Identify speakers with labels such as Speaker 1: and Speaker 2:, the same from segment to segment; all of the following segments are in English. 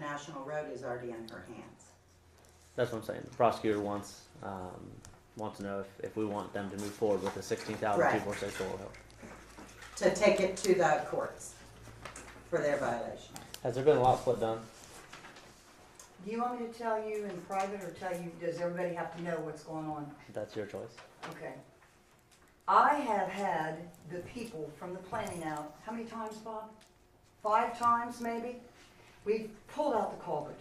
Speaker 1: National Road is already in her hands.
Speaker 2: That's what I'm saying. The prosecutor wants um, wants to know if, if we want them to move forward with the sixteen thousand two
Speaker 1: Right.
Speaker 2: four six oil help.
Speaker 1: To take it to the courts for their violation.
Speaker 2: Has there been a lot split done?
Speaker 3: Do you want me to tell you in private or tell you, does everybody have to know what's going on?
Speaker 2: That's your choice.
Speaker 3: Okay. I have had the people from the planning out, how many times, Bob? Five times, maybe? We've pulled out the culvert.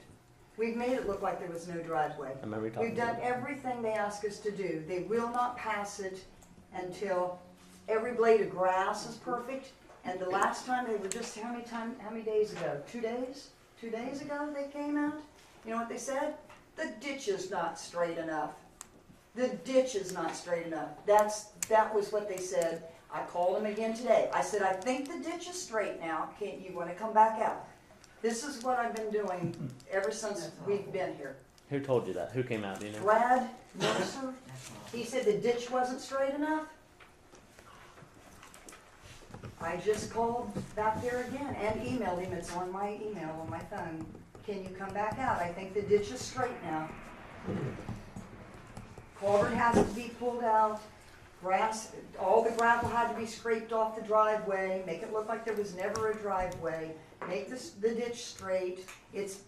Speaker 3: We've made it look like there was no driveway.
Speaker 2: I remember you talking.
Speaker 3: We've done
Speaker 2: about it.
Speaker 3: everything they ask us to do. They will not pass it until every blade of grass is perfect. And the last time, they were just, how many time, how many days ago? Two days? Two days ago they came out? You know what they said? The ditch is not straight enough. The ditch is not straight enough. That's, that was what they said. I called them again today. I said, I think the ditch is straight now. Can't, you wanna come back out? This is what I've been doing ever since we've been here.
Speaker 2: Who told you that? Who came out? Do you know?
Speaker 3: Brad Mercer, he said the ditch wasn't straight enough. I just called back there again and emailed him, it's on my email, on my phone. Can you come back out? I think the ditch is straight now. Culvert has to be pulled out, grass, all the gravel had to be scraped off the driveway, make it look like there was never a driveway, make this, the ditch straight. It's,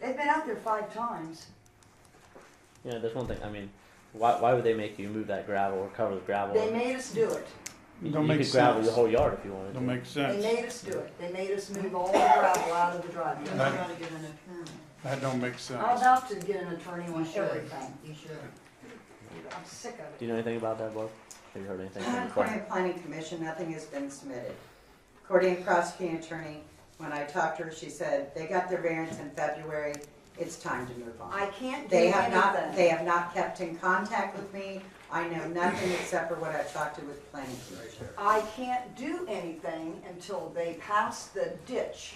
Speaker 3: they've been out there five times.
Speaker 2: You know, there's one thing. I mean, why, why would they make you move that gravel or cover the gravel?
Speaker 3: They made us do it.
Speaker 2: you
Speaker 4: Don't
Speaker 2: you
Speaker 4: make
Speaker 2: could gravel
Speaker 4: sense.
Speaker 2: the whole yard if you wanted.
Speaker 4: Don't
Speaker 2: to.
Speaker 4: make
Speaker 3: They
Speaker 4: sense.
Speaker 3: made us do it. They made us move all the gravel out of the
Speaker 1: You're
Speaker 3: driveway.
Speaker 1: not gonna get an attorney.
Speaker 4: That don't make
Speaker 3: I'm
Speaker 4: sense.
Speaker 3: about to get an attorney
Speaker 1: You
Speaker 3: on
Speaker 1: should.
Speaker 3: everything.
Speaker 1: You should.
Speaker 3: I'm sick of
Speaker 2: Do
Speaker 3: it.
Speaker 2: you know anything about that, Bob? Have you heard anything from the
Speaker 1: According
Speaker 2: client?
Speaker 1: to planning commission, nothing has been submitted. According to prosecuting attorney, when I talked to her, she said, they got their variance in February, it's time to move on.
Speaker 3: I can't do
Speaker 1: They have not,
Speaker 3: anything.
Speaker 1: they have not kept in contact with me. I know nothing except for what I've talked to with planning commission.
Speaker 3: I can't do anything until they pass the ditch.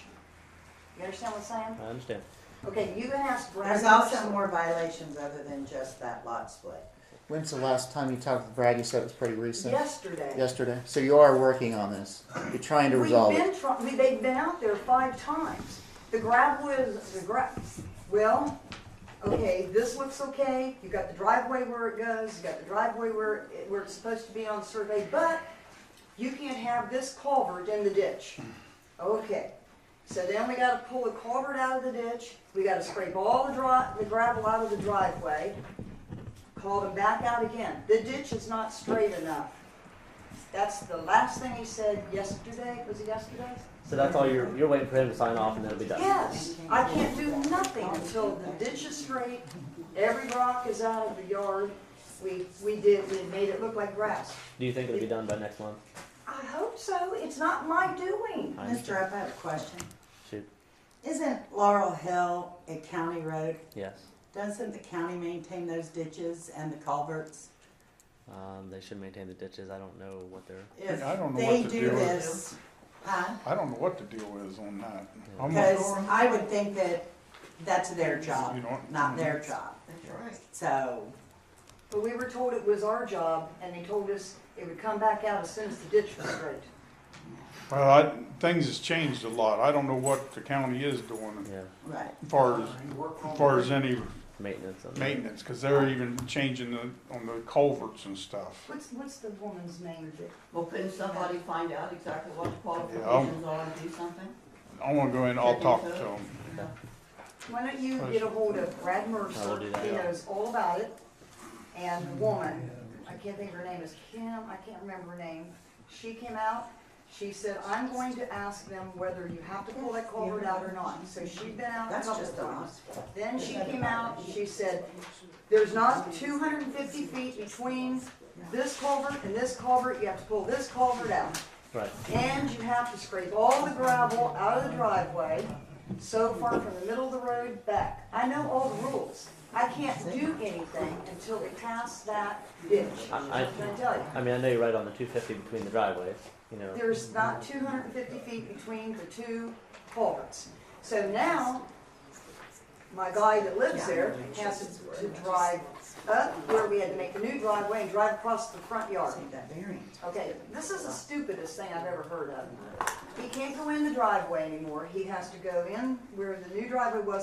Speaker 3: You understand what I'm saying?
Speaker 2: I understand.
Speaker 3: Okay, you can ask Brad.
Speaker 1: There's also more violations other than just that lot split.
Speaker 5: When's the last time you talked with Brad? You said it was pretty recent.
Speaker 3: Yesterday.
Speaker 5: Yesterday. So you are working on this. You're trying to resolve
Speaker 3: We've
Speaker 5: it.
Speaker 3: been try, we, they've been out there five times. The gravel is, the gra, well, okay, this looks okay, you got the driveway where it goes, you got the driveway where, it- where it's supposed to be on survey, but you can't have this culvert in the ditch. Okay, so then we gotta pull the culvert out of the ditch, we gotta scrape all the dri, the gravel out of the driveway, call them back out again. The ditch is not straight enough. That's the last thing he said yesterday, was it yesterday?
Speaker 2: So that's all you're you're waiting for him to sign off, and then it'll be done.
Speaker 3: Yes, I can't do nothing until the ditch is straight, every rock is out of the yard. We, we did, we made it look like grass.
Speaker 2: Do you think it'll be done by next month?
Speaker 3: I hope so, it's not my doing.
Speaker 2: I
Speaker 1: Mr. Up, I have a question.
Speaker 2: Shoot.
Speaker 1: Isn't Laurel Hill a county road?
Speaker 2: Yes.
Speaker 1: Doesn't the county maintain those ditches and the culverts?
Speaker 2: Um, they should maintain the ditches. I don't know what they're.
Speaker 1: If
Speaker 4: I don't know
Speaker 1: they
Speaker 4: what to
Speaker 1: do
Speaker 4: do with-
Speaker 1: this, huh?
Speaker 4: I don't know what the deal is on that. I'm not-
Speaker 1: Because I would think that that's their job,
Speaker 4: You don't-
Speaker 1: not their job. So,
Speaker 3: But we were told it was our job, and they told us it would come back out as soon as the ditch was straight.
Speaker 4: Well, I, things has changed a lot. I don't know what the county is doing
Speaker 2: Yeah.
Speaker 1: right,
Speaker 4: as far as, as far as any
Speaker 2: Maintenance. on that.
Speaker 4: maintenance, because they're even changing the, on the culverts and stuff.
Speaker 3: What's, what's the woman's name that
Speaker 6: Well, couldn't somebody find out exactly what the qualifications are to do something?
Speaker 4: I wanna go in, I'll talk to them.
Speaker 3: Why don't you get a hold of Brad
Speaker 2: I will
Speaker 3: Mercer,
Speaker 2: do that.
Speaker 3: he knows all about it, and the woman, I can't think of her name, is Kim, I can't remember her name. She came out, she said, I'm going to ask them whether you have to pull that culvert out or not, so she'd been out a
Speaker 1: that's
Speaker 3: couple
Speaker 1: just a lot.
Speaker 3: times. Then she came out, and she said, there's not two hundred and fifty feet between this culvert and this culvert, you have to pull this culvert out.
Speaker 2: Right.
Speaker 3: And you have to scrape all the gravel out of the driveway so far from the middle of the road back. I know all the rules. I can't do anything until they pass that ditch.
Speaker 2: I- I-
Speaker 3: Can I tell you?
Speaker 2: I mean, I know you're right on the 250 between the driveways. You know.
Speaker 3: There's not two hundred and fifty feet between the two culverts. So now, my guy that lives there has to- to drive up where we had to make the new driveway and drive across the front yard.
Speaker 1: Need that variance.
Speaker 3: Okay, this is the stupidest thing I've ever heard of. He can't go in the driveway anymore, he has to go in where the new driveway was